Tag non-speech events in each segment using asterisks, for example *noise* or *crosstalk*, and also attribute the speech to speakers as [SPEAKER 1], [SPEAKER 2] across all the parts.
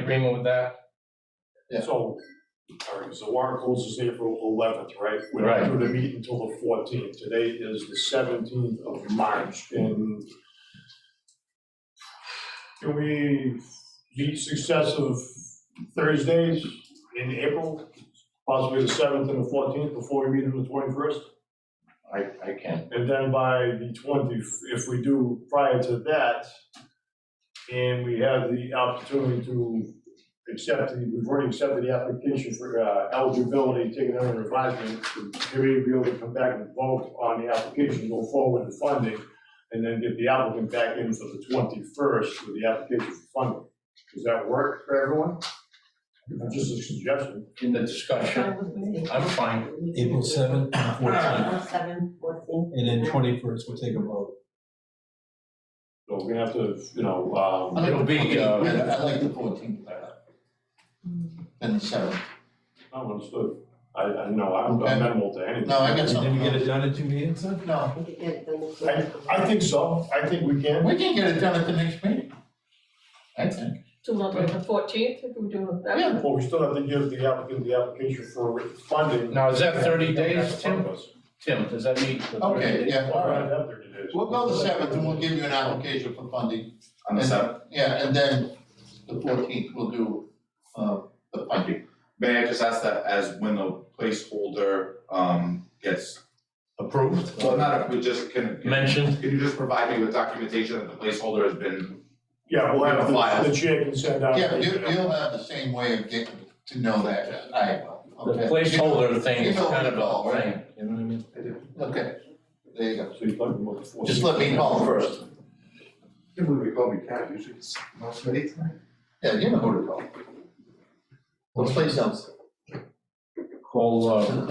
[SPEAKER 1] agreement with that?
[SPEAKER 2] Yeah.
[SPEAKER 3] So, all right, so warrant closes April eleventh, right? We're
[SPEAKER 1] Right.
[SPEAKER 3] not due to meet until the fourteenth. Today is the seventeenth of March and can we meet successive Thursdays in April, possibly the seventh and the fourteenth before we meet on the twenty-first?
[SPEAKER 2] I, I can.
[SPEAKER 3] And then by the twenty, if we do prior to that, and we have the opportunity to accept, the- we've already accepted the application for uh, eligibility, taken under advisement, to be able to come back and vote on the application, go forward with funding, and then get the applicant back in for the twenty-first with the application for funding. Does that work for everyone? Just a suggestion.
[SPEAKER 2] In the discussion, I'm fine.
[SPEAKER 4] April seventh and fourteenth,
[SPEAKER 5] April seventh, fourteenth.
[SPEAKER 4] and then twenty-first, we'll take a vote.
[SPEAKER 3] So we're gonna have to, you know, um,
[SPEAKER 2] It'll be, uh,
[SPEAKER 6] I like the fourteenth better. Than the seventh.
[SPEAKER 3] I don't understand. I, I know, I'm I'm amenable to anything.
[SPEAKER 6] No, I got
[SPEAKER 4] And
[SPEAKER 6] something.
[SPEAKER 4] then we get it done in two meetings, huh?
[SPEAKER 6] No,
[SPEAKER 5] We could get it done this
[SPEAKER 3] I,
[SPEAKER 5] year.
[SPEAKER 3] I think so, I think we can.
[SPEAKER 6] we can get it done at the next meeting. I think.
[SPEAKER 7] To look at the fourteenth, if we do that.
[SPEAKER 6] Yeah.
[SPEAKER 3] Well, we still have to give the applicant the application for funding.
[SPEAKER 2] Now, is that 30 days, Tim?
[SPEAKER 3] All
[SPEAKER 2] Tim, does that meet the thirty
[SPEAKER 6] Okay,
[SPEAKER 2] days?
[SPEAKER 6] yeah, all
[SPEAKER 3] right,
[SPEAKER 6] right.
[SPEAKER 3] that thirty days.
[SPEAKER 6] We'll go the seventh and we'll give you an application for funding.
[SPEAKER 2] On the
[SPEAKER 6] And-
[SPEAKER 2] seventh.
[SPEAKER 6] Yeah, and then the fourteenth we'll do, uh, the funding.
[SPEAKER 8] May I just ask that as when the placeholder um gets,
[SPEAKER 2] Approved?
[SPEAKER 8] well, not if we just can.
[SPEAKER 1] Mentioned?
[SPEAKER 8] Can you just provide me with documentation that the placeholder has been,
[SPEAKER 3] Yeah, we'll have
[SPEAKER 8] File.
[SPEAKER 3] the, the chair can send out.
[SPEAKER 6] Yeah, you, you'll have the same way of getting to know that, as I will,
[SPEAKER 1] The
[SPEAKER 6] okay?
[SPEAKER 1] placeholder thing
[SPEAKER 6] you
[SPEAKER 1] is
[SPEAKER 6] know
[SPEAKER 1] kind
[SPEAKER 6] the
[SPEAKER 1] of
[SPEAKER 6] call,
[SPEAKER 1] a
[SPEAKER 6] right?
[SPEAKER 1] thing, you know what I mean?
[SPEAKER 6] Okay, there you go.
[SPEAKER 3] So you plug them up before.
[SPEAKER 6] Just let me call first.
[SPEAKER 8] can we recall me cat, usually it's most ready tonight?
[SPEAKER 6] Yeah, you know who to call. Let's play something.
[SPEAKER 2] Call, uh,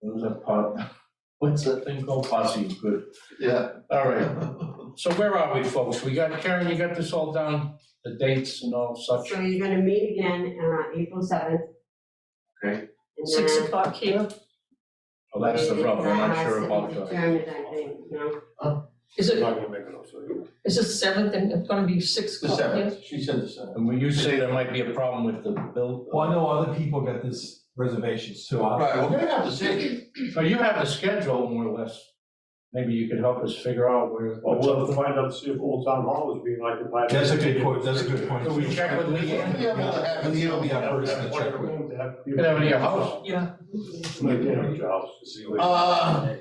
[SPEAKER 2] what is that pot? What's that thing called? Posse is good.
[SPEAKER 6] Yeah.
[SPEAKER 2] All right. So where are we, folks? We got, Karen, you got this all down? The dates and all such?
[SPEAKER 5] So you're gonna meet again, uh, April seventh.
[SPEAKER 2] Okay.
[SPEAKER 5] And
[SPEAKER 7] Six
[SPEAKER 5] then.
[SPEAKER 7] o'clock here.
[SPEAKER 2] Well, Oh, that's the rub. I'm not sure about
[SPEAKER 5] It's
[SPEAKER 2] the.
[SPEAKER 5] adjourned, I think, no,
[SPEAKER 7] Is
[SPEAKER 3] I'm
[SPEAKER 7] it,
[SPEAKER 3] not gonna make it up, so you.
[SPEAKER 7] is it seventh and it's gonna be six
[SPEAKER 6] The
[SPEAKER 7] o'clock here?
[SPEAKER 6] seventh, she said the seventh.
[SPEAKER 2] And when you say there might be a problem with the bill.
[SPEAKER 4] Well, I know other people got this reservations too. I-
[SPEAKER 6] Right, we're gonna have to see.
[SPEAKER 2] So you have the schedule more or less. Maybe you could help us figure out where.
[SPEAKER 3] Well, we'll have to find out, to see if Old Town Hall is being occupied.
[SPEAKER 4] That's a good point, that's a good point.
[SPEAKER 2] Can we check with Leanne?
[SPEAKER 6] Yeah, we'll have it.
[SPEAKER 4] Leanne will be our person to
[SPEAKER 3] Have
[SPEAKER 4] check with.
[SPEAKER 3] room to have
[SPEAKER 2] You
[SPEAKER 3] people-
[SPEAKER 2] can have it in your house.
[SPEAKER 7] Yeah.
[SPEAKER 3] Like, you know, jobs, to see what-
[SPEAKER 6] Uh,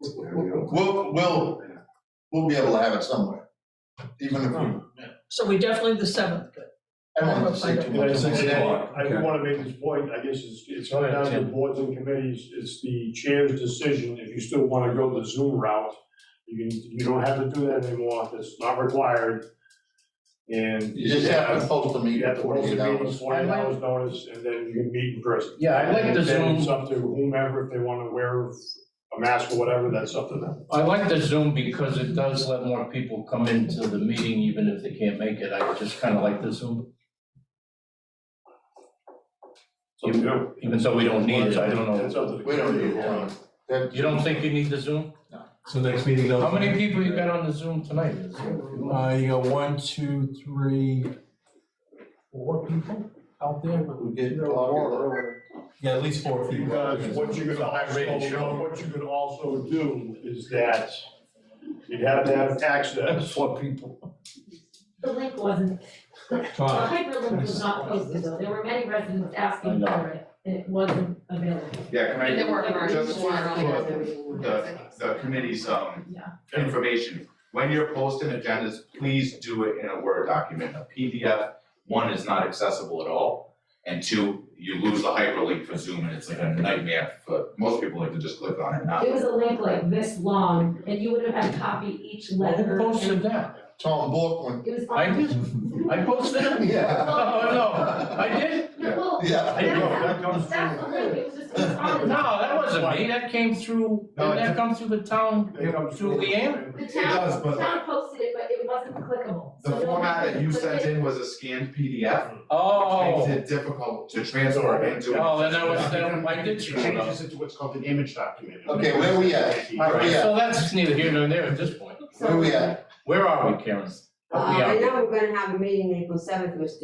[SPEAKER 6] we'll, we'll, we'll be able to have it somewhere, even if we,
[SPEAKER 7] So we definitely the seventh, good.
[SPEAKER 6] I don't want to say too
[SPEAKER 3] And I
[SPEAKER 6] much.
[SPEAKER 3] said, and
[SPEAKER 4] Six
[SPEAKER 3] I-
[SPEAKER 4] o'clock,
[SPEAKER 3] I do
[SPEAKER 4] okay.
[SPEAKER 3] wanna make this point, I guess it's, it's
[SPEAKER 2] Go
[SPEAKER 3] not
[SPEAKER 2] ahead,
[SPEAKER 3] down to
[SPEAKER 2] Tim.
[SPEAKER 3] boards and committees, it's the chair's decision, if you still wanna go the Zoom route, you can, you don't have to do that anymore, it's not required. And
[SPEAKER 6] You just have to post the
[SPEAKER 3] You
[SPEAKER 6] meeting
[SPEAKER 3] have to post a
[SPEAKER 6] forty-eight
[SPEAKER 3] meeting,
[SPEAKER 6] hours.
[SPEAKER 3] forty hours notice, and then you can meet in person.
[SPEAKER 2] Yeah, I like the
[SPEAKER 3] Then it's
[SPEAKER 2] Zoom,
[SPEAKER 3] up to whomever, if they wanna wear a mask or whatever, that's up to them.
[SPEAKER 2] I like the Zoom because it does let more people come into the meeting even if they can't make it. I just kind of like the Zoom,
[SPEAKER 3] It's up to you.
[SPEAKER 2] even though we don't need it, I don't
[SPEAKER 3] It's
[SPEAKER 2] know.
[SPEAKER 3] up to the
[SPEAKER 6] We don't need
[SPEAKER 3] committee.
[SPEAKER 6] one. That-
[SPEAKER 2] You don't think you need the Zoom?
[SPEAKER 4] So next meeting, those.
[SPEAKER 2] How many people you got on the Zoom tonight?
[SPEAKER 4] Uh, you got one, two, three, four people out there?
[SPEAKER 6] We get all of
[SPEAKER 4] Yeah, at least four people.
[SPEAKER 3] Because what you could also, what you could also do is that you'd have to have access.
[SPEAKER 2] Four people.
[SPEAKER 9] The link wasn't, the
[SPEAKER 4] Fine.
[SPEAKER 9] hyperlink was not posted, though, there were many residents asking for it, and it wasn't available.
[SPEAKER 8] Yeah, can I,
[SPEAKER 5] There were
[SPEAKER 8] just
[SPEAKER 5] emergencies.
[SPEAKER 8] for
[SPEAKER 5] Yeah,
[SPEAKER 8] the
[SPEAKER 5] there was-
[SPEAKER 8] the committee's um
[SPEAKER 9] Yeah.
[SPEAKER 8] information, when you're posting agendas, please do it in a Word document. A PDF, one, is not accessible at all, and two, you lose the hyperlink for Zoom, and it's like a nightmare for, most people like to just click on it, not.
[SPEAKER 9] It was a link like this long, and you would have had to copy each letter.
[SPEAKER 2] Who posted
[SPEAKER 9] and-
[SPEAKER 2] that?
[SPEAKER 6] Tom
[SPEAKER 5] *laughs*
[SPEAKER 6] Borkman.
[SPEAKER 9] It was on.
[SPEAKER 2] I did,
[SPEAKER 4] Mm-hmm.
[SPEAKER 2] I posted it? *laughs*
[SPEAKER 6] Yeah.
[SPEAKER 2] Oh, no, I did?
[SPEAKER 9] No, well,
[SPEAKER 6] Yeah.
[SPEAKER 2] I did.
[SPEAKER 3] that comes
[SPEAKER 9] that's the
[SPEAKER 3] from-
[SPEAKER 9] link, it was just, it was on.
[SPEAKER 2] No, that wasn't me, that came through, did that come through the town,
[SPEAKER 3] It comes
[SPEAKER 2] through Leanne?
[SPEAKER 9] The
[SPEAKER 8] does,
[SPEAKER 9] town,
[SPEAKER 8] but-
[SPEAKER 9] the town posted it, but it wasn't clickable.
[SPEAKER 8] The
[SPEAKER 9] So no
[SPEAKER 8] format
[SPEAKER 9] one
[SPEAKER 8] that you
[SPEAKER 9] could click
[SPEAKER 8] sent
[SPEAKER 9] it.
[SPEAKER 8] in was a scanned PDF, which
[SPEAKER 2] Oh,
[SPEAKER 8] makes it difficult to transfer into.
[SPEAKER 2] oh, then that was, that, I did screw it up.
[SPEAKER 3] into what's called an image document.
[SPEAKER 6] Okay, where we at?
[SPEAKER 2] All right,
[SPEAKER 6] Yeah.
[SPEAKER 2] so that's neither here nor there at this point.
[SPEAKER 6] Where we at?
[SPEAKER 2] Where are we, Karen?
[SPEAKER 5] Uh,
[SPEAKER 2] Yeah.
[SPEAKER 5] I know we're gonna have a meeting April seventh, which